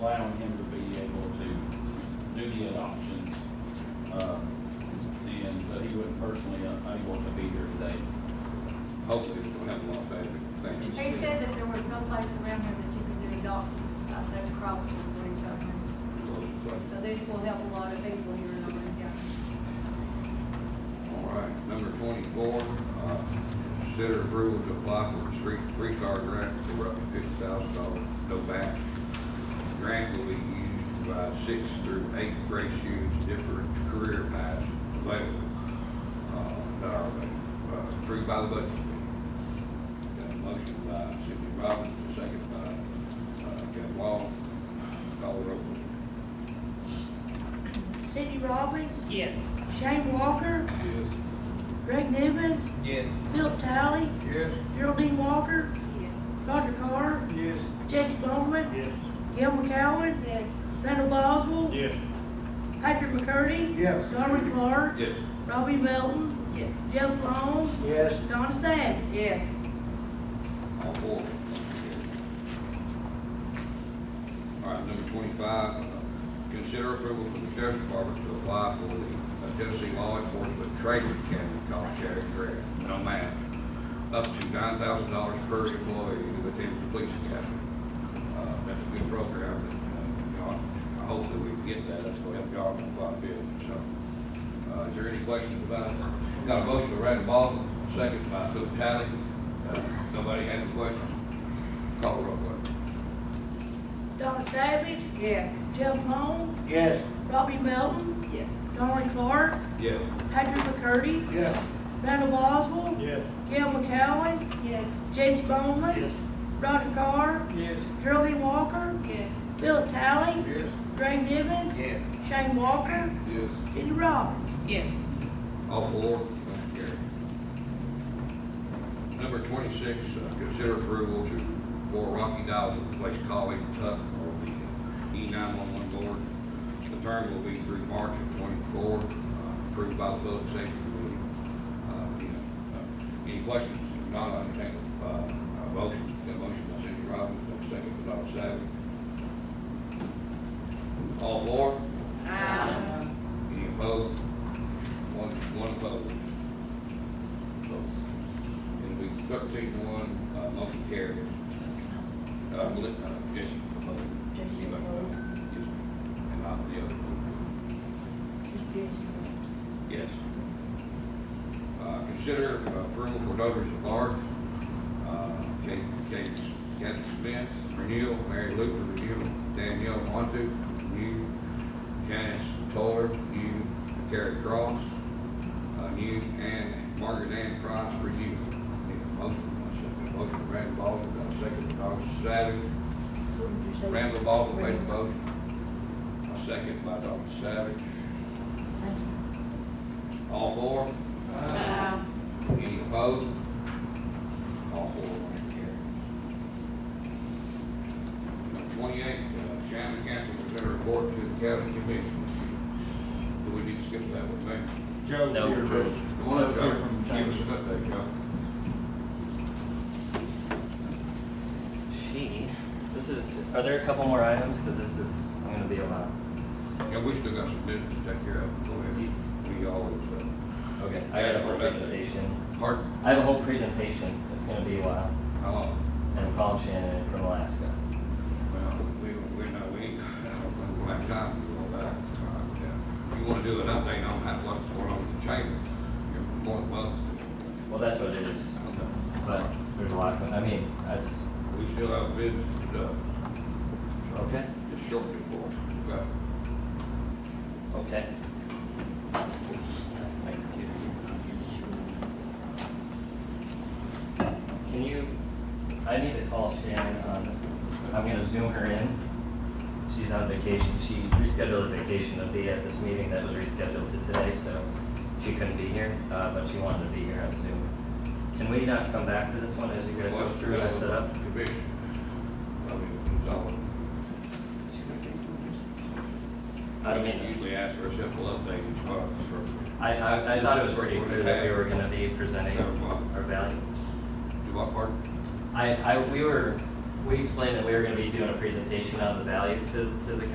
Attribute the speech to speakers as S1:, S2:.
S1: allowing him to be able to do the adoptions. um, And, but he was personally unable to be here today.
S2: Hopefully, we don't have a lot of bad things.
S3: They said that there was no place around here that you could do adoptions, uh, no crossing for each other. So this will help a lot of people here in Auburn County.
S2: All right, number twenty-four, uh, consider approval to apply for a street, three-star grant for up to fifty thousand dollars, no back. Grant will be used by sixth through eighth grade students, different career paths, level, uh, that are uh, approved by the budget. committee. Got a motion by Cindy Robbins, a second by, uh, Kevin Long, call the roll.
S4: Cindy Robbins,
S5: Yes.
S4: Shane Walker, Greg Nivens,
S6: Yes.
S4: Phil Talley,
S6: Yes.
S4: Geraldine Walker,
S3: Yes.
S4: Roger Carr,
S6: Yes.
S4: Jesse Bowman,
S6: Yes.
S4: Gil McCowen,
S3: Yes.
S4: Randall Boswell,
S6: Yes.
S4: Patrick McCurdy,
S6: Yes.
S4: Darwin Clark,
S2: Yes.
S4: Robbie Melton,
S3: Yes.
S4: Jeff Long,
S6: Yes.
S4: Donna Savage.
S3: Yes.
S2: All four. All right, number twenty-five, uh, consider approval from the sheriff's department to apply for the uh, Tennessee Law Enforcement Training Academy cost sharing grant, no match, up to nine thousand dollars per employee within the police academy. Uh, That's a good program, and, uh, you know, hopefully we can get that, that's gonna help y'all in a lot of business, so. Uh, Is there any questions about it? Got a motion by Randall Boswell, second by Cook Tally. Uh, Nobody had any questions? Call the roll, please.
S4: Donna Savage,
S3: Yes.
S4: Jeff Long,
S6: Yes.
S4: Robbie Melton,
S3: Yes.
S4: Darwin Clark,
S2: Yes.
S4: Patrick McCurdy,
S6: Yes.
S4: Randall Boswell,
S6: Yes.
S4: Gil McCowen,
S3: Yes.
S4: Jesse Bowman, Roger Carr,
S6: Yes.
S4: Geraldine Walker,
S3: Yes.
S4: Phil Talley,
S6: Yes.
S4: Greg Nivens,
S6: Yes.
S4: Shane Walker,
S2: Yes.
S4: Cindy Robbins.
S5: Yes.
S2: All four, motion carried. Number twenty-six, uh, consider approval to, for Rocky Dow to replace Colleen Tuck on the E nine-one-one board. The term will be through March of twenty-four, uh, approved by the Public Safety Committee. Uh, you know, uh, Any questions? If Not on the table, uh, a motion, got a motion by Cindy Robbins, got a second by Donna Savage. All four?
S3: Aye.
S2: Any opposed? One, one opposed. Opposed. It'll be thirteen to one, uh, motion carries. Uh, Meli- uh, Jason opposed.
S4: Jason
S2: Anybody
S4: opposed.
S2: Yes, ma'am. And I'm the other. Yes. Uh, consider approval for voters at large. Uh, Kate, Kate, Kathy Spence, renewal, Mary Luther, renewal, Danielle Montu, new, Janice Toller, new, Carrie Cross, uh, new, and Margaret Ann Price, renewal. Need a motion, a motion, by Randall Baldwin, got a second, by Dr. Savage, Randall Baldwin made the motion. A second by Dr. Savage. All four?
S3: Aye.
S2: Any opposed? All four, motion carries. Number Twenty-eight, uh, Shannon County consider report to the county commission. Do we need to skip that one, man?
S1: Joe's
S6: No,
S1: here.
S6: Joe's-
S1: but-
S2: One of
S1: Joe's here from
S2: them,
S1: Chambers.
S2: give us an update, Joe.
S7: She, this is, are there a couple more items? Because this is, I'm gonna be a lot.
S2: Yeah, we still got some business to take care of. Go ahead. We always, uh,
S7: Okay. I got a whole
S2: Yeah, okay.
S7: presentation.
S2: pardon,
S7: I have a whole presentation. It's gonna be a while.
S2: how long?
S7: And I'm calling Shannon from Alaska.
S2: Well, we, we know, we, ain't- I don't think we'll have time to do all that. Uh, You wanna do an update on that, what's going on with the chamber? You're more than welcome.
S7: Well, that's what it is. But there's a lot going, I mean, that's,
S2: We still have bids, uh,
S7: okay,
S2: just shortly for us. We've got-
S7: okay. Can you, I need to call Shannon on, I'm gonna zoom her in. She's on vacation. She rescheduled a vacation to be at this meeting that was rescheduled to today, so she couldn't be here, uh, but she wanted to be here on Zoom. Can we not come back to this one as you guys go
S2: what's the
S7: through and I set up?
S2: Commission. I mean, it's all.
S7: I don't mean,
S2: Usually ask for a simple update each month for,
S7: I, I, I thought it was pretty clear that we were gonna be presenting
S2: Seven o'clock.
S7: our value.
S2: do what part?
S7: I, I, we were, we explained that we were gonna be doing a presentation on the value to, to the